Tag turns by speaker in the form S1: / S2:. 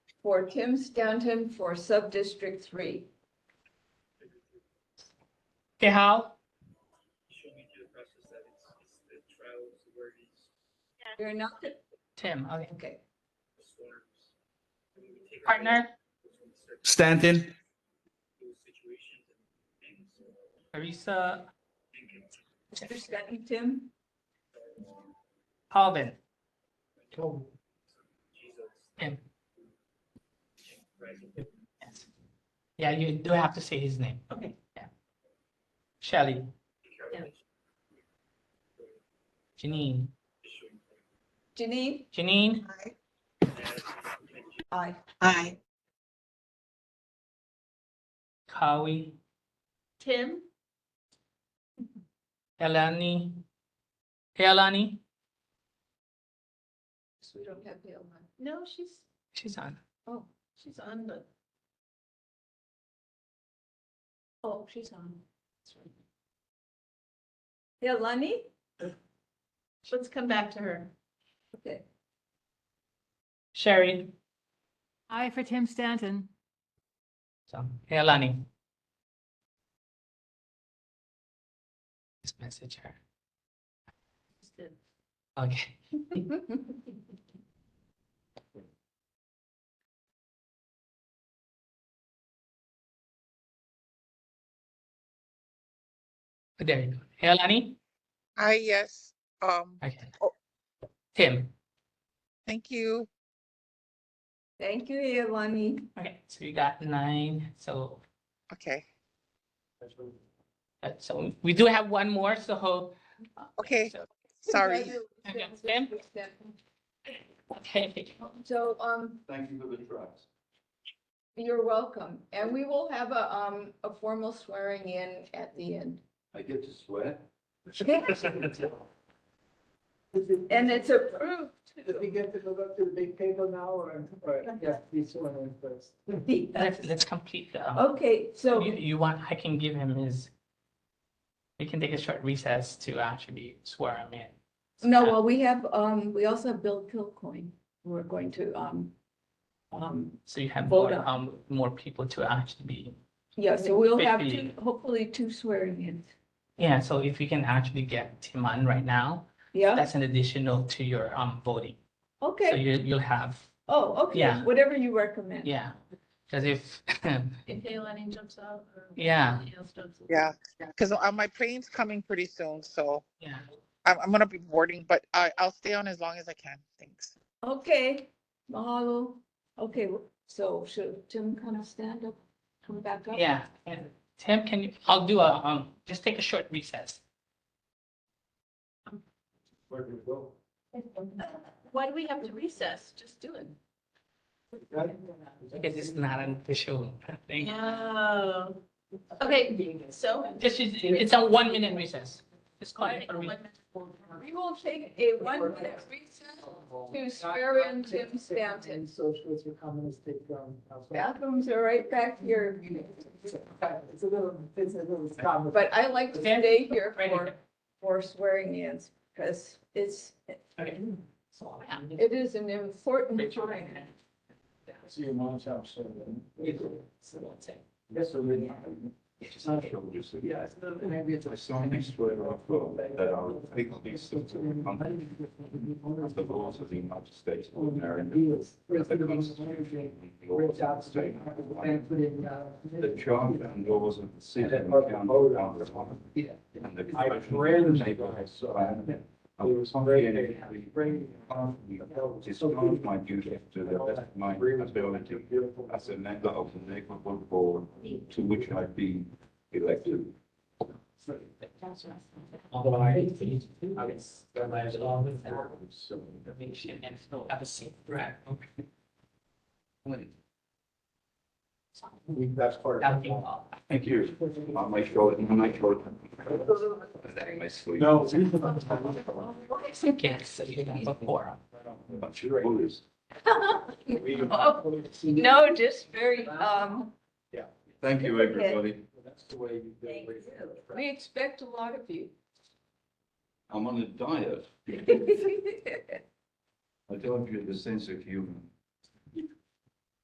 S1: for Tim Stanton for sub-district three.
S2: Okay, how?
S3: Should we do the process that it's, it's the trials where these
S1: You're not,
S2: Tim, okay.
S1: okay,
S3: disorders. and we take our
S2: Partner,
S3: from certain
S4: Stanton,
S3: situations and things.
S2: Teresa,
S3: and can-
S1: Mr. Stanton, Tim,
S2: Calvin,
S3: Jesus.
S2: Tim.
S3: Christ.
S2: Yes. Yeah, you do have to say his name. Okay, yeah. Shelley,
S3: Take care of
S2: Yeah.
S3: it.
S2: Janine,
S3: Issue.
S1: Janine?
S2: Janine,
S3: And-
S1: Aye.
S5: Aye.
S2: Kawi,
S6: Tim,
S2: Elani. Hey, Elani,
S1: So we don't have Dale on.
S6: no, she's,
S2: she's on.
S6: oh, she's on the. Oh, she's on.
S1: Dale Lunny?
S6: Let's come back to her.
S1: Okay,
S2: Sherry,
S7: Aye for Tim Stanton.
S2: so, hey, Elani. Just message her.
S6: Just did.
S2: Okay, there you go. Hey, Elani,
S5: Aye, yes. Um,
S2: okay.
S5: Oh.
S2: Tim,
S5: thank you.
S1: thank you, Yolani.
S2: okay, so you got nine, so
S5: Okay,
S2: Uh, So we do have one more, so. uh,
S5: Okay.
S2: so-
S5: sorry.
S2: Okay. Okay,
S1: So, um,
S4: Thank you for the trust.
S1: you're welcome, and we will have a, um, a formal swearing in at the end.
S4: I get to swear.
S1: And it's approved.
S8: Did we get to go back to the big table now or, or, yeah, this one went first?
S2: let's, let's complete the, um,
S1: Okay, so,
S2: you, you want, I can give him his. We can take a short recess to actually swear him in.
S1: no, well, we have, um, we also have Bill Kilcoin, who we're going to, um, um,
S2: So you have
S1: vote
S2: more,
S1: on.
S2: um, more people to actually be,
S1: yeah, so we'll have two,
S2: Fifty.
S1: hopefully two swearing ins.
S2: yeah, so if we can actually get Tim on right now,
S1: Yeah,
S2: that's an additional to your, um, voting. So
S1: okay,
S2: you, you'll have,
S1: oh, okay,
S2: Yeah.
S1: whatever you recommend.
S2: yeah, because if,
S6: If Leilani jumps out or.
S2: Yeah.
S6: somebody else jumps in.
S5: yeah, because my plane's coming pretty soon, so
S2: yeah.
S5: I'm, I'm gonna be boarding, but I, I'll stay on as long as I can. Thanks.
S1: Okay, mahalo. Okay, so should Tim kind of stand up, come back up?
S2: Yeah, and Tim, can you, I'll do a, um, just take a short recess.
S4: Where do we go?
S6: Why do we have to recess? Just do it.
S2: Because it's not an official thing.
S6: Oh. Okay, so.
S2: This is, it's a one minute recess. Just call it for a
S6: One
S2: week.
S6: minute.
S1: We will take a one-minute recess to swear in Tim Stanton.
S8: Socialist or communist take from.
S1: Bathrooms are right back here,
S8: It's a little, it's a little. scum.
S1: but I like to stay here for, for swearing ins because it's,
S2: Okay.
S1: it is an important time.
S8: See your mom's house.
S4: Yes, so we. It's not sure, just, yeah, it's not- maybe it's a song, I swear, or, uh, that are legally suitable, under the laws of the United States, and are in the laws of the state. The charter and laws of the city and county of Honolulu. And the cultural neighborhoods surrounding it. I was obligated to bring upon me discharge my duties to the best of my ability as a member of the neighborhood board to which I've been elected. That's part Thank you. I'll make sure, I'll make sure. That my sleep.
S8: No.
S2: Yes, so you have a forum.
S4: Bunch of lawyers.
S1: No, just very, um,
S4: Thank you, everybody.
S8: That's the way you do it.
S1: we expect a lot of you.
S4: I'm on a diet. I don't get the sense of humor.